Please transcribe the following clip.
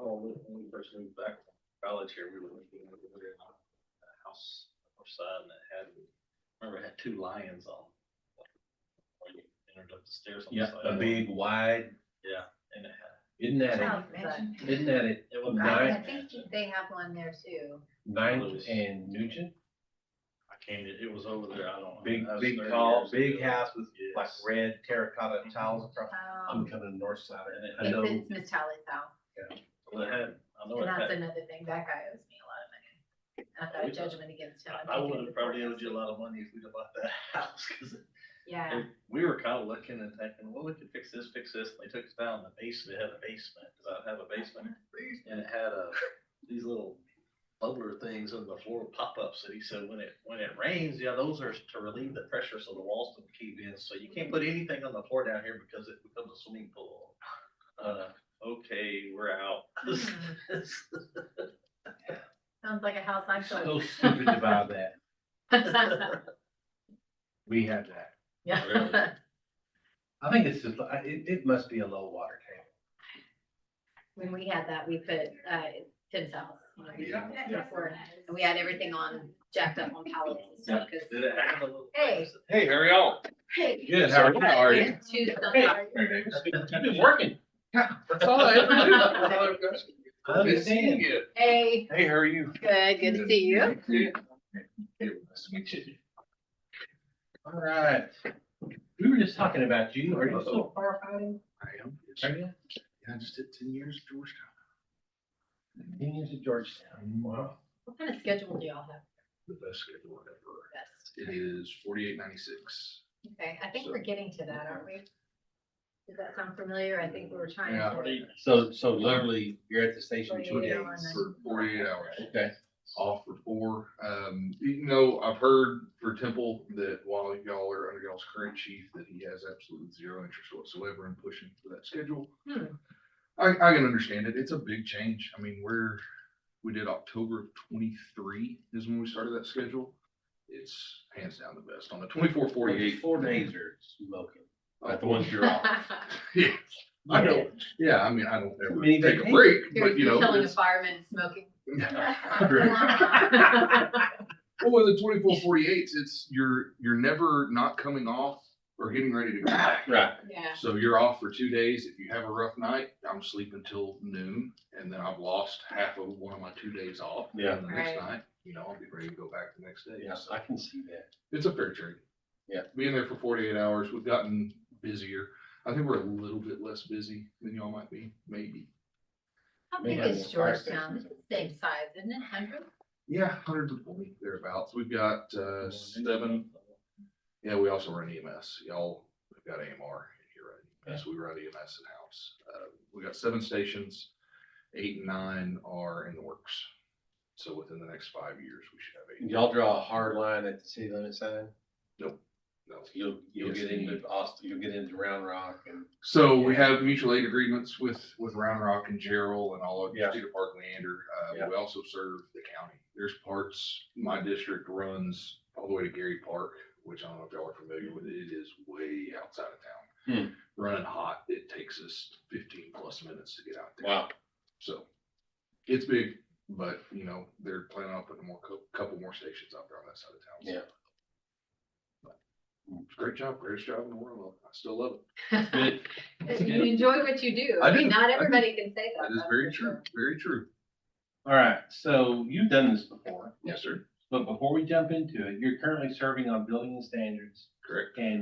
Oh, when when we first moved back from college here, we were looking at a house north side and it had, remember it had two lions on. When you entered up the stairs on the Yeah, side. a big wide, Yeah, and it had, isn't that, Sounds it? isn't that it, it was. I Nine. I think they have one there too. Ninth and Nugent? I came, to- it was over there, I don't. know, Big, that was big 30 tall, years big ago. house with like Yes. red terracotta tiles across. I'm Um, coming to north side, and Mm-hmm. I It's, know, it's Miss Tally's house, Well, it had, I know and it that's had, another thing, that guy owes me a lot of money. And I've got a judgment against him. I'm I- I taking would it to have probably court. owed you a lot of money if we'd have bought that house, cause it- Yeah, we were kind of looking and thinking, well, we could fix this, fix this, and they took us down in the basement, it had a basement, cause I have a basement. And it had a, these little bubbler things on the floor pop-ups, and he said, when it, when it rains, yeah, those are to relieve the pressure so the walls don't cave in, so you can't put anything on the floor down here because it becomes a swimming pool. Uh, okay, we're out. Hmm. sounds like a house I'm so showing. stupid to buy that. We have that. Yeah, Really? I think it's just, I- it, it must be a low water table. when we had that, we put, uh, Tim's house, you know, we Yeah. put it forward, and we had everything on, jacked up on pallets and stuff, cause. Did it have a little? Hey. Hey, how are y'all? Hey, Good, how are you? How are you? Two stuff. You've been working. That's all I ever do. That's all I've got. I Good seeing understand. you. Hey, Hey, how are you? good, good to see you. Good. Hey, nice to meet you. All right. We were just talking about you. Are you still firefighting? I am. Are you? I just did ten years at Georgetown. Union to Georgetown. Wow. What kind of schedule do y'all have The best schedule ever. best? It is forty-eight ninety-six. Okay, I think we're getting to that, aren't we? Does that sound familiar? I think we were trying. Yeah. to- So, so literally, you're at the station two Forty-eight days. hours. For forty-eight hours. Okay. Off for four. Um, you know, I've heard for Temple that while y'all are under y'all's current chief, that he has absolutely zero interest whatsoever in pushing for that schedule. Hmm, I, I can understand it. It's a big change. I mean, we're, we did October of twenty-three is when we started that schedule. It's hands down the best on the twenty-four, forty-eight. Four days are smoking. Like the ones you're Yeah, I know. Yeah, I mean, I don't ever Many take a vacations. break, You're but you you're know. killing a it's- fireman and smoking. Well, with Oh, the twenty-four, forty-eights, it's, you're, you're never not coming off or getting ready to go back. Right. Yeah, So you're off for two days. If you have a rough night, I'm sleeping till noon and then I've lost half of one of my two days off. Yeah. And the next Right. night, you know, I'll be ready to go back the next day. Yes, So I can see that. It's a fair trade. Yeah. Being there for forty-eight hours, we've gotten busier. I think we're a little bit less busy than y'all might be, maybe. how Maybe big I'm is a fire Georgetown? It's station. the same size, isn't it? Hundred? Yeah, hundred and forty thereabouts. We've got, uh, seven. Yeah, we also run EMS. Y'all, we've got AMR in here, right? Yes, we run E EMS in-house. Uh, we got seven stations, eight and nine are in the works. So within the next five years, we should have eight. Y'all draw a hard line at the city limit sign? No. You'll, you'll Yes. get into Austin, you'll get into Round Rock and. So we have mutual aid agreements with, with Round Rock and Gerald and all of Yeah. Cedar Park Leander. Yeah. Uh, we also serve the county. There's parts, my district runs all the way to Gary Park, which I don't know if y'all are familiar with. It is way outside of Hmm. town. Running hot, it takes us fifteen plus minutes to get out there. Wow. So it's big, but you know, they're planning on putting more, cou- couple more stations out there on that side of town. Yeah. But, Great job, greatest job in the world. I still love it. You enjoy what you do. I mean, do, I Not do. everybody can say that. That is that's very for true, sure. very true. All right, so you've done this before, Yes, sir. but before we jump into it, you're currently serving on building and standards Correct. and